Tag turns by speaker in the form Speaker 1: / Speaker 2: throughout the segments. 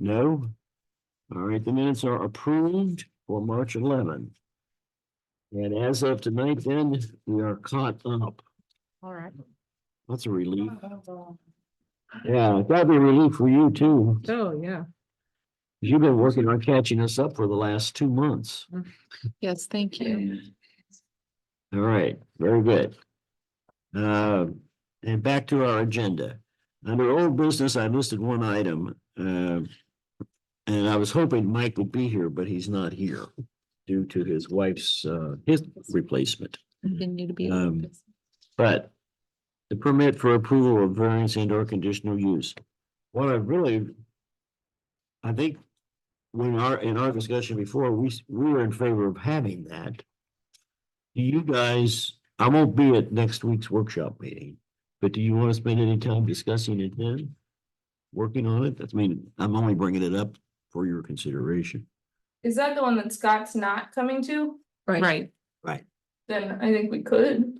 Speaker 1: No? All right, the minutes are approved for March eleventh. And as of tonight, then, we are caught up.
Speaker 2: All right.
Speaker 1: That's a relief. Yeah, that'd be a relief for you too.
Speaker 2: Oh, yeah.
Speaker 1: You've been working on catching us up for the last two months.
Speaker 2: Yes, thank you.
Speaker 1: All right, very good. Uh, and back to our agenda. Under old business, I listed one item, uh. And I was hoping Mike would be here, but he's not here due to his wife's, uh, his replacement.
Speaker 2: Continue to be.
Speaker 1: Um, But the permit for approval of variance and or conditional use. What I really, I think when our, in our discussion before, we, s- we were in favor of having that. Do you guys, I won't be at next week's workshop meeting, but do you want to spend any time discussing it then? Working on it? That's I mean, I'm only bringing it up for your consideration.
Speaker 3: Is that the one that Scott's not coming to?
Speaker 2: Right.
Speaker 3: Then I think we could.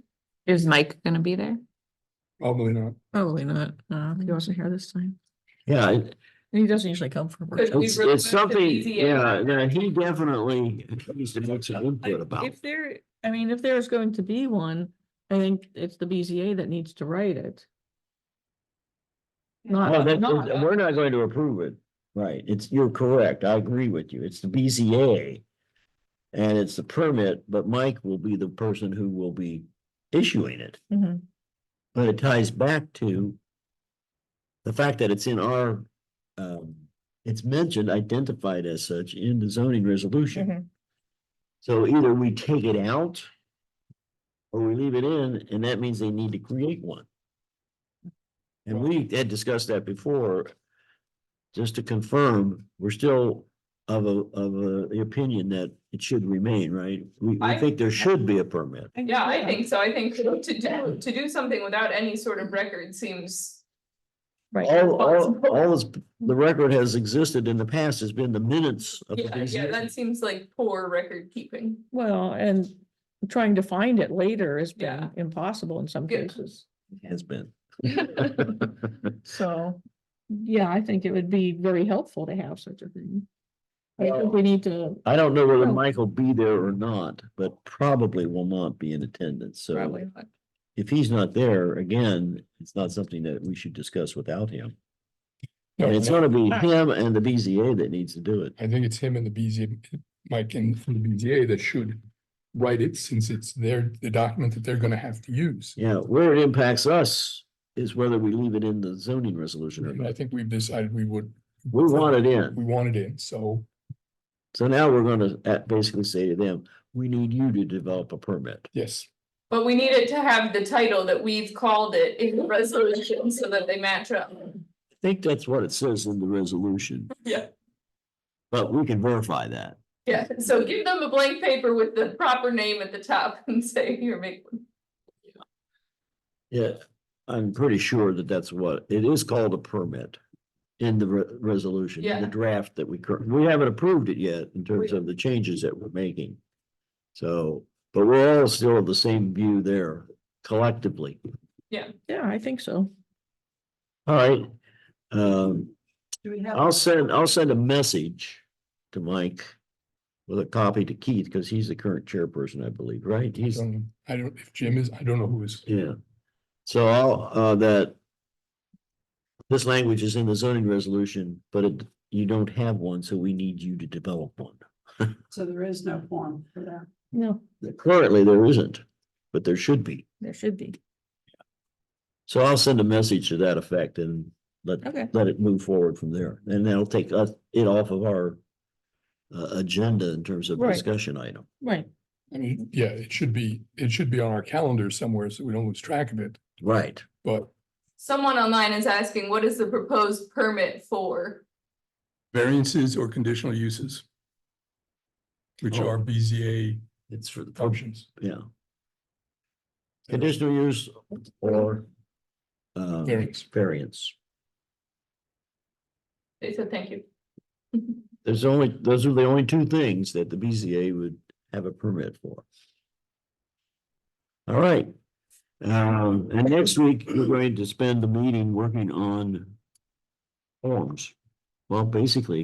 Speaker 2: Is Mike gonna be there?
Speaker 4: Probably not.
Speaker 5: Probably not. Uh,
Speaker 3: Mm.
Speaker 5: he wasn't here this time.
Speaker 1: Yeah, it-
Speaker 5: And he doesn't usually come for work.
Speaker 3: Could we
Speaker 1: It's,
Speaker 3: really
Speaker 1: it's
Speaker 3: make it
Speaker 1: something,
Speaker 3: easier?
Speaker 1: yeah, that he definitely needs to make some input about.
Speaker 5: If there, I mean, if there's going to be one, I think it's the BZA that needs to write it.
Speaker 1: Well,
Speaker 5: Not,
Speaker 1: that-
Speaker 5: not,
Speaker 1: that- we're not going to approve it. Right, it's, you're correct, I agree with you, it's the BZA. And it's the permit, but Mike will be the person who will be issuing it,
Speaker 5: Mhm.
Speaker 1: but it ties back to. The fact that it's in our, um, it's mentioned, identified as such in the zoning resolution.
Speaker 5: Mhm.
Speaker 1: So either we take it out. Or we leave it in, and that means they need to create one. And we had discussed that before. Just to confirm, we're still of a, of a, the opinion that it should remain, right? We, we
Speaker 3: I-
Speaker 1: think there should be a permit.
Speaker 3: Yeah, I think so. I think to do, to do something without any sort of record seems,
Speaker 5: right.
Speaker 1: All, all, all is, the record has existed in the past has been the minutes of the
Speaker 3: yeah, yeah,
Speaker 1: BZA.
Speaker 3: that seems like poor record keeping.
Speaker 5: Well, and trying to find it later has been
Speaker 3: Yeah.
Speaker 5: impossible in some
Speaker 3: Yeah.
Speaker 5: cases.
Speaker 1: Has been.
Speaker 5: So,
Speaker 3: Mm-hmm.
Speaker 5: yeah, I think it would be very helpful to have such a thing. I think we need to
Speaker 1: I don't know whether
Speaker 5: Oh.
Speaker 1: Mike will be there or not, but probably will not be in attendance, so
Speaker 5: probably,
Speaker 1: if he's not there, again, it's not something that we should discuss without him. I mean, it's gonna be him and the BZA that needs to do it.
Speaker 4: I think it's him and the BZA, Mike and the BZA that should write it since it's their, the document that they're gonna have to use.
Speaker 1: Yeah, where it impacts us is whether we leave it in the zoning resolution or
Speaker 4: And I
Speaker 1: not.
Speaker 4: think we've decided we would.
Speaker 1: We want it
Speaker 4: We
Speaker 1: in.
Speaker 4: want it in, so
Speaker 1: So now we're gonna uh, basically say to them, we need you to develop a permit.
Speaker 4: yes,
Speaker 3: But we needed to have the title that we've called it in the resolution so that they match up.
Speaker 1: I think that's what it says in the resolution,
Speaker 3: Yeah.
Speaker 1: but we can verify that.
Speaker 3: Yeah, so give them a blank paper with the proper name at the top and say, here, make. one."
Speaker 1: Yeah, I'm pretty sure that that's what, it is called a permit in the re- resolution, in the
Speaker 3: Yeah.
Speaker 1: draft that we currently, we haven't approved it yet in terms of the changes that we're making. So, but we're all still of the same view there collectively.
Speaker 5: yeah, I think so.
Speaker 1: All right. Um,
Speaker 2: Do we have?
Speaker 1: I'll send, I'll send a message to Mike with a copy to Keith, because he's the current chairperson, I believe, right? He's,
Speaker 4: um, I don't, if Jim is, I don't know who is.
Speaker 1: yeah. So I'll, uh, that this language is in the zoning resolution, but it, you don't have one, so we need you to develop one.
Speaker 2: So there is no form for that.
Speaker 5: No,
Speaker 1: Currently, there isn't, but there should be.
Speaker 5: there should be.
Speaker 1: So I'll send a message to that effect and let,
Speaker 5: Okay.
Speaker 1: let it move forward from there. And that'll take us, it off of our uh, agenda in terms of
Speaker 5: Right.
Speaker 1: discussion item.
Speaker 5: Right.
Speaker 4: I mean, yeah, it should be, it should be on our calendar somewhere so we don't lose track of it,
Speaker 1: Right.
Speaker 4: but
Speaker 3: Someone online is asking, what is the proposed permit for?
Speaker 4: variances or conditional uses. Which
Speaker 1: Oh.
Speaker 4: are BZA
Speaker 1: It's for the, pub-
Speaker 4: functions.
Speaker 1: yeah. Conditional use or um,
Speaker 4: Variance.
Speaker 1: variance.
Speaker 3: They said, thank you.
Speaker 1: There's only, those are the only two things that the BZA would have a permit for. All right. Um, and next week, we're going to spend the meeting working on forms. Well, basically,